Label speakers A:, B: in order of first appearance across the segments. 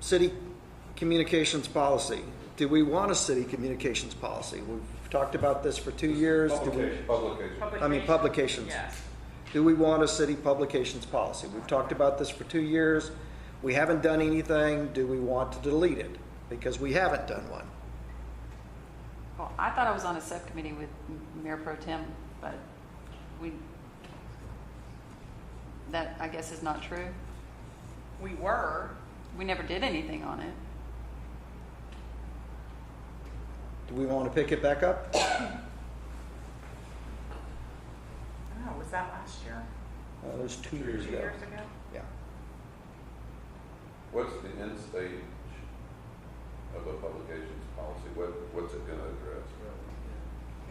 A: City communications policy. Do we want a city communications policy? We've talked about this for two years. Do we-
B: Publication, publication.
A: I mean, publications.
C: Yes.
A: Do we want a city publications policy? We've talked about this for two years. We haven't done anything. Do we want to delete it? Because we haven't done one.
C: Well, I thought I was on a subcommittee with M- Mayor Pro Tem, but we, that, I guess, is not true. We were. We never did anything on it.
A: Do we want to pick it back up? Uh,
D: Oh, was that last year?
A: Uh, It was two years
D: Two
A: ago.
D: years ago?
A: Yeah.
B: What's the end stage of a publications policy? What, what's it gonna address?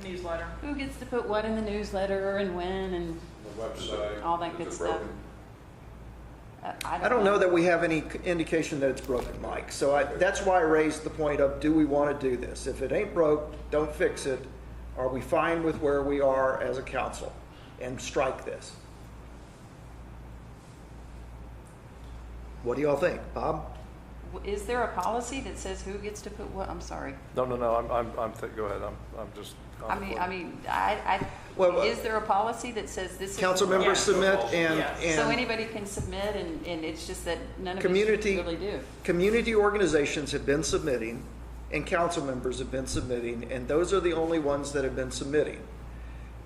D: Newsletter.
C: Who gets to put what in the newsletter and when and
B: The website?
C: All that
B: is
C: good
B: it
C: stuff.
B: broken?
C: uh,
A: I don't know that we have any c- indication that it's broken, Mike. So I, that's why I raised the point of, do we want to do this? If it ain't broke, don't fix it. Are we fine with where we are as a council? And strike this. What do y'all think, Bob?
C: W- Is there a policy that says who gets to put what? I'm sorry.
E: No, no, no, I'm, I'm, I'm, th- go ahead, I'm, I'm just. on
C: I
E: the
C: mean,
E: floor.
C: I mean, I,
A: Well,
C: I,
A: uh,
C: is there a policy that says this is?
A: Council members submit and,
C: So
A: and
C: anybody can submit and, and it's just that none of us
A: Community-
C: really do.
A: community organizations have been submitting and council members have been submitting, and those are the only ones that have been submitting.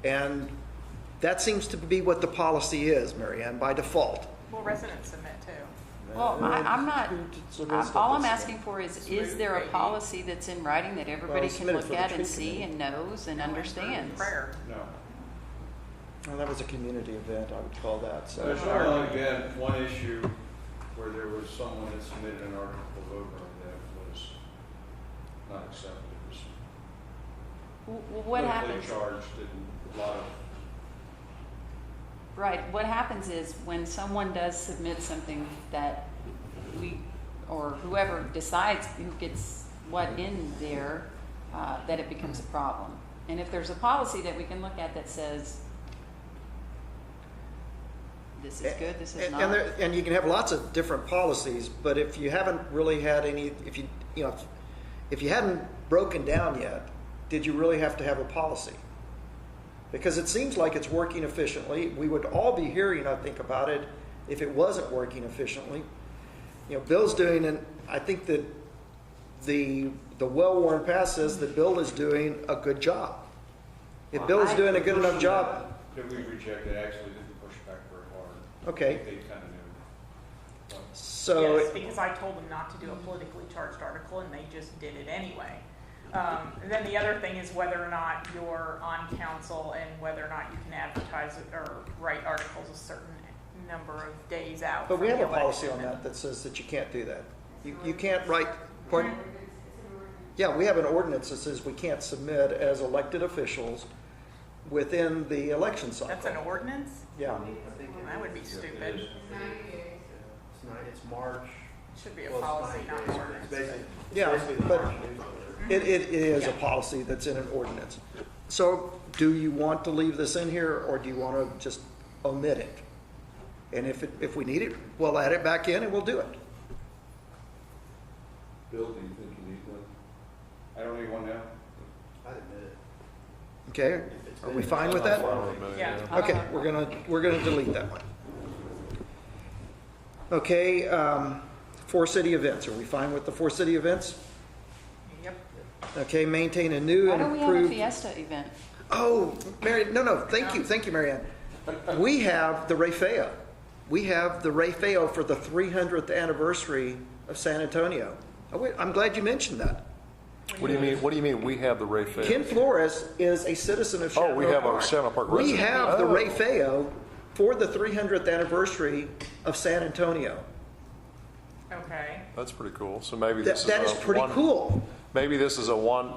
A: And that seems to be what the policy is, Marianne, by default.
D: Well, residents submit too.
C: Well, I, I'm not,
A: It's a
C: I'm-
A: list of
C: all I'm
A: this.
C: asking for is, is there a policy that's in writing that
A: Well,
C: everybody
A: it's
C: can
A: submitted
C: look
A: for the
C: at
A: tree
C: and see
A: committee.
C: and knows and understands?
D: Prayer.
F: No.
A: Well, that was a community event, I would call that, so.
F: There's only been one issue where there was someone that submitted an article over and that was not accepted. It was
C: W- w- What happens,
F: Politically charged and a lot of,
C: right, what happens is when someone does submit something that we, or whoever decides who gets what in there, uh, that it becomes a problem. And if there's a policy that we can look at that says, this is good, this is
A: And-
C: not.
A: And there, and you can have lots of different policies, but if you haven't really had any, if you, you know, if- if you hadn't broken down yet, did you really have to have a policy? Because it seems like it's working efficiently. We would all be hearing, I think, about it if it wasn't working efficiently. You know, Bill's doing, and I think that the, the well-worn path says that Bill is doing a good job. If Bill is doing a good enough job,
F: that we rejected, actually didn't push back very hard.
A: Okay.
F: They kind of knew.
A: so.
D: yes, because I told them not to do a politically charged article, and they just did it anyway. Um, and then the other thing is whether or not you're on council and whether or not you can advertise it or write articles a certain number of days out.
A: But we
D: from
A: have a
D: the
A: policy on
D: election.
A: that that says that you can't do that. You, you can't write, pardon? Yeah, we have an ordinance that says we can't submit as elected officials within the election
D: That's an
A: cycle.
D: ordinance?
A: Yeah,
D: That would be stupid.
G: It's not, it's March.
D: Should be a
G: well, it's
D: policy, not an
G: it's
D: ordinance.
G: basically- it's
A: Yeah,
G: basically the
A: but-
G: March newsletter.
A: it, it it is a policy that's in an ordinance. So do you want to leave this in here or do you want to just omit it? And if, it- if we need it, we'll add it back in and we'll do it.
B: Bill, do you think you need one?
F: I don't need one now.
G: I admit it.
A: Okay?
G: If it's
A: Are we
G: been-
A: fine with that?
D: Yeah.
A: Okay, we're gonna, we're gonna delete that one. Okay, um, four city events, are we fine with the four city events?
D: Yep.
A: Okay, maintain a new
C: Why
A: and
C: don't we have a
A: improved.
C: fiesta event?
A: Oh, Mary, no, no, thank you, thank you, Mary Ann. We have the Rayfeo. We have the Rayfeo for the three hundredth anniversary of San Antonio. Oh, wait, I'm glad you mentioned that.
E: What do you mean, what do you mean, we have the Ray Fair?
A: Ken Flores is a citizen of
E: Oh,
A: Chateau
E: we have a
A: Park.
E: Santa Park
A: We
E: resident.
A: have the
E: Oh.
A: Ray Feo for the 300th anniversary of San Antonio.
D: Okay.
E: That's pretty cool, so maybe
A: That,
E: this is a.
A: that is pretty
E: one-
A: cool.
E: Maybe this is a one,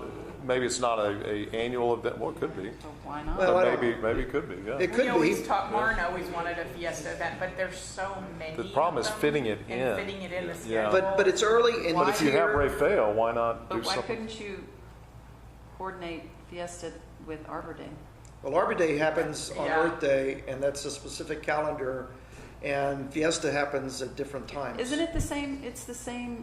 E: maybe it's not a, a annual event, well, it could be,
C: So why not?
A: Well, I
E: but
A: don't-
E: maybe, maybe it could be, yeah.
A: It
D: We
A: could be.
D: always talk, Martin always wanted a fiesta event, but there's so many.
E: The problem
D: of
E: is
D: them,
E: fitting it in.
D: And fitting it in the schedule.
E: Yeah.
A: But, but it's early and
C: But
E: But if you have Ray Fair, why not do
C: But why
E: something?
C: couldn't you coordinate Fiesta with Arbor Day?
A: Well, Arbor Day happens on
D: Yeah.
A: Earth Day, and that's a specific calendar, and Fiesta happens at different times.
C: Isn't it the same, it's the same